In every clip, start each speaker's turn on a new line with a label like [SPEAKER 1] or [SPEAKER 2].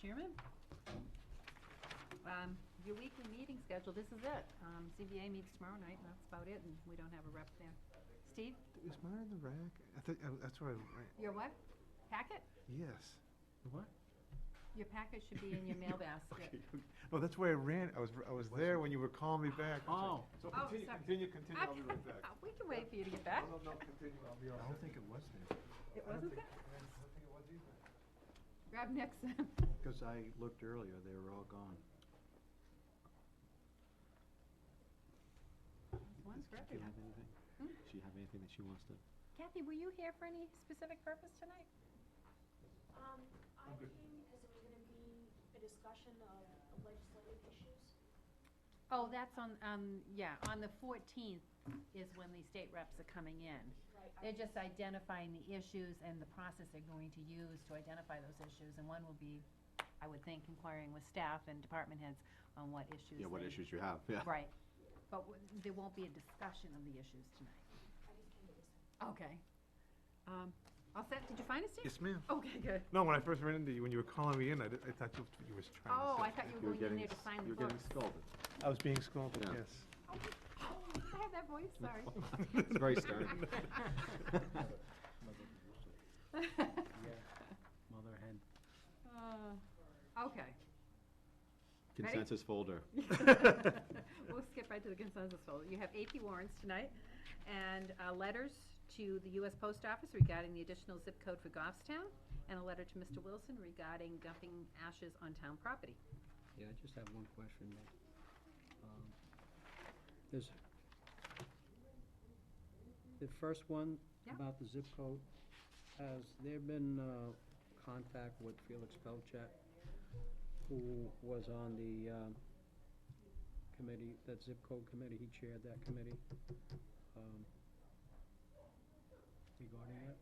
[SPEAKER 1] Chairman. Um, Your weekly meeting schedule, this is it. Um, CBA meets tomorrow night, and that's about it, and we don't have a rep there. Steve,
[SPEAKER 2] Is mine in the rack? I think, I- that's what I, ran-
[SPEAKER 1] your what? Packet?
[SPEAKER 2] yes.
[SPEAKER 3] What?
[SPEAKER 1] Your packet should be in your mail
[SPEAKER 2] Okay.
[SPEAKER 1] basket.
[SPEAKER 2] No, that's why I ran, I was, r- I was there when you were calling me back. I was
[SPEAKER 3] Oh,
[SPEAKER 2] like, So
[SPEAKER 1] Oh,
[SPEAKER 2] continue,
[SPEAKER 1] sorry.
[SPEAKER 2] continue, continue, I'll be
[SPEAKER 1] Okay,
[SPEAKER 2] right back.
[SPEAKER 1] We can wait for you to get back.
[SPEAKER 2] No, no, no, continue, I'll be all
[SPEAKER 3] I
[SPEAKER 2] right.
[SPEAKER 3] don't think it was there.
[SPEAKER 1] It
[SPEAKER 2] I don't
[SPEAKER 1] wasn't
[SPEAKER 2] think-
[SPEAKER 1] that?
[SPEAKER 2] I don't think it was either.
[SPEAKER 1] Grab Nixon.
[SPEAKER 3] Because I looked earlier, they were all gone.
[SPEAKER 1] One's for
[SPEAKER 3] Do you
[SPEAKER 1] everyone.
[SPEAKER 3] have anything?
[SPEAKER 1] Hmm?
[SPEAKER 3] Do you have anything that she wants to?
[SPEAKER 1] Kathy, were you here for any specific purpose tonight?
[SPEAKER 4] Um, I came because it was gonna be a discussion of legislative issues.
[SPEAKER 1] Oh, that's on, um, yeah, on the fourteenth is when the state reps are coming in.
[SPEAKER 4] Right.
[SPEAKER 1] They're just identifying the issues and the process they're going to use to identify those issues, and one will be, I would think, inquiring with staff and department heads on what issues.
[SPEAKER 3] Yeah, what
[SPEAKER 1] they-
[SPEAKER 3] issues you have, yeah.
[SPEAKER 1] Right, but w- there won't be a discussion of the issues tonight.
[SPEAKER 4] I just came to listen.
[SPEAKER 1] Okay. Um, all set, did you find us, Steve?
[SPEAKER 2] Yes, ma'am.
[SPEAKER 1] Okay, good.
[SPEAKER 2] No, when I first ran into you, when you were calling me in, I, did- I thought you, you was trying to.
[SPEAKER 1] Oh,
[SPEAKER 2] say
[SPEAKER 1] I thought you
[SPEAKER 3] You
[SPEAKER 1] were
[SPEAKER 3] were
[SPEAKER 1] going in
[SPEAKER 3] getting,
[SPEAKER 1] there to
[SPEAKER 3] s-
[SPEAKER 1] sign the
[SPEAKER 3] you were
[SPEAKER 1] books.
[SPEAKER 3] getting scolded.
[SPEAKER 2] I was being scolded,
[SPEAKER 3] Yeah.
[SPEAKER 2] yes.
[SPEAKER 1] Oh, I have that voice, sorry.
[SPEAKER 3] It's very stern. Mother had.
[SPEAKER 1] Uh, Okay. Ready?
[SPEAKER 3] Consensus folder.
[SPEAKER 1] We'll skip right to the consensus folder. You have AP warrants tonight and uh, letters to the U.S. Post Office regarding the additional zip code for Goffstown and a letter to Mr. Wilson regarding dumping ashes on town property.
[SPEAKER 5] Yeah, I just have one question, Nick. Um, There's, the first one
[SPEAKER 1] Yeah.
[SPEAKER 5] about the zip code, has there been uh, contact with Felix Belchak, who was on the um, committee, that zip code committee, he chaired that committee? um, Regarding that?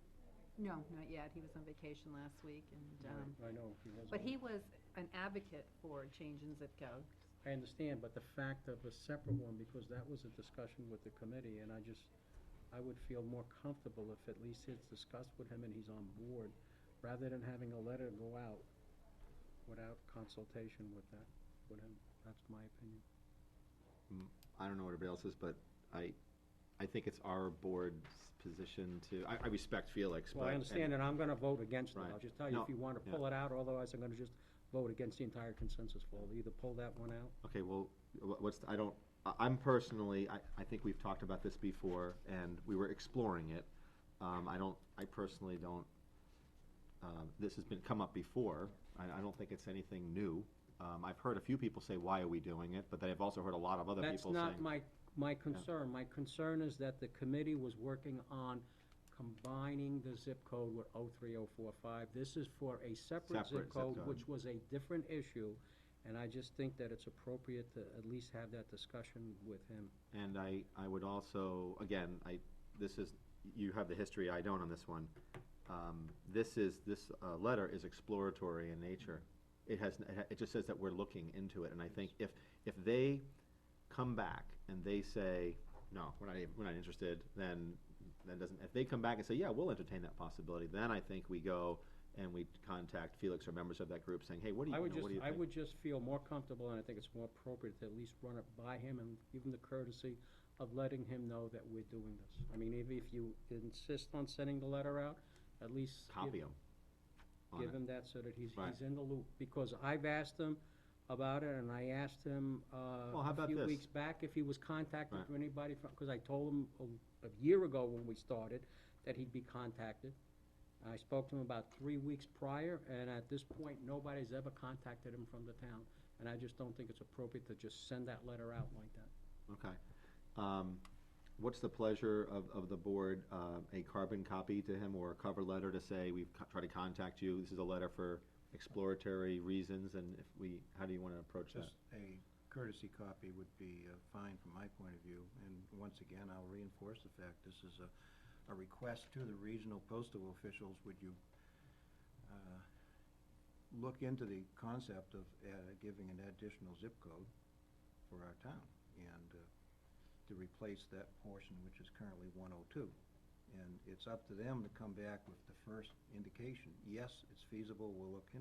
[SPEAKER 1] No, not yet. He was on vacation last week and, um,
[SPEAKER 5] I know, he was
[SPEAKER 1] but
[SPEAKER 5] on-
[SPEAKER 1] he was an advocate for change in zip code.
[SPEAKER 5] I understand, but the fact of a separate one, because that was a discussion with the committee, and I just, I would feel more comfortable if at least it's discussed with him and he's on board, rather than having a letter go out without consultation with that, with him. That's my opinion.
[SPEAKER 3] I don't know what everybody else is, but I, I think it's our board's position to, I, I respect Felix, but.
[SPEAKER 5] Well, I understand, and I'm gonna vote against it.
[SPEAKER 3] Right.
[SPEAKER 5] I'll just tell you, if
[SPEAKER 3] No,
[SPEAKER 5] you wanna
[SPEAKER 3] yeah.
[SPEAKER 5] pull it out, otherwise I'm gonna just vote against the entire consensus vote. Either pull that one out,
[SPEAKER 3] Okay, well, wha- what's, the- I don't, I- I'm personally, I, I think we've talked about this before, and we were exploring it. Um, I don't, I personally don't, um, this has been, come up before, I, I don't think it's anything new. Um, I've heard a few people say, why are we doing it, but then I've also heard a lot of other people
[SPEAKER 5] That's not
[SPEAKER 3] saying.
[SPEAKER 5] my, my concern. My concern is that the committee was working on combining the zip code with 03045. This is for a separate
[SPEAKER 3] Separate zip
[SPEAKER 5] zip code,
[SPEAKER 3] code.
[SPEAKER 5] which was a different issue. And I just think that it's appropriate to at least have that discussion with him.
[SPEAKER 3] And I, I would also, again, I, this is, you have the history, I don't on this one. Um, this is, this, uh, letter is exploratory in nature. It has, it ha- it just says that we're looking into it, and I think if, if they come back and they say, no, we're not, even- we're not interested, then, then doesn't, if they come back and say, yeah, we'll entertain that possibility, then I think we go and we contact Felix or members of that group saying, hey, what do you, you
[SPEAKER 5] I
[SPEAKER 3] know,
[SPEAKER 5] would just,
[SPEAKER 3] what do you
[SPEAKER 5] I
[SPEAKER 3] think?
[SPEAKER 5] would just feel more comfortable, and I think it's more appropriate to at least run it by him and give him the courtesy of letting him know that we're doing this. I mean, even if you insist on sending the letter out, at least. you
[SPEAKER 3] Copy 'em on
[SPEAKER 5] give
[SPEAKER 3] it.
[SPEAKER 5] him that so that he's,
[SPEAKER 3] Right.
[SPEAKER 5] he's in the loop, because I've asked him about it, and I asked him, uh,
[SPEAKER 3] Well, how
[SPEAKER 5] a
[SPEAKER 3] about
[SPEAKER 5] few
[SPEAKER 3] this?
[SPEAKER 5] weeks back if he was contacted
[SPEAKER 3] Right.
[SPEAKER 5] for anybody from, because I told him a, a year ago when we started that he'd be contacted. I spoke to him about three weeks prior, and at this point, nobody's ever contacted him from the town, and I just don't think it's appropriate to just send that letter out like that.
[SPEAKER 3] Okay. Um, What's the pleasure of, of the board, uh, a carbon copy to him or a cover letter to say, we've co- tried to contact you, this is a letter for exploratory reasons, and if we, how do you want to approach that?
[SPEAKER 6] Just a courtesy copy would be uh, fine from my point of view, and once again, I'll reinforce the fact, this is a, a request to the regional postal officials, would you uh, look into the concept of uh, giving an additional zip code for our town, and uh, to replace that portion which is currently 102. And it's up to them to come back with the first indication, yes, it's feasible, we'll look into